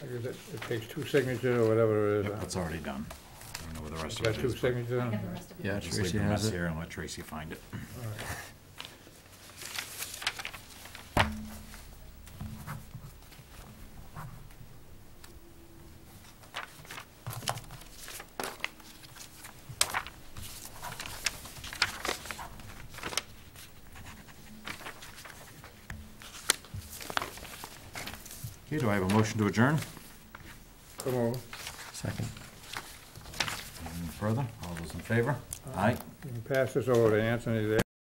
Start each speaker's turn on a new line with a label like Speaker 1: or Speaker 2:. Speaker 1: Because it it takes two signatures or whatever it
Speaker 2: Yep,
Speaker 1: is.
Speaker 2: that's already done. I don't know where the rest of
Speaker 1: Got
Speaker 2: it
Speaker 1: two
Speaker 2: is. but
Speaker 1: signatures on it?
Speaker 3: have the rest of it.
Speaker 4: Yeah,
Speaker 2: Just leave
Speaker 4: Tracy
Speaker 2: the mess
Speaker 4: has it.
Speaker 2: here and let Tracy find it.
Speaker 1: All right.
Speaker 2: Okay, do I have a motion to adjourn?
Speaker 1: Come on,
Speaker 4: Second.
Speaker 2: Anything further? All those in favor? Aye.
Speaker 1: Uh, you can pass this over to Anthony there.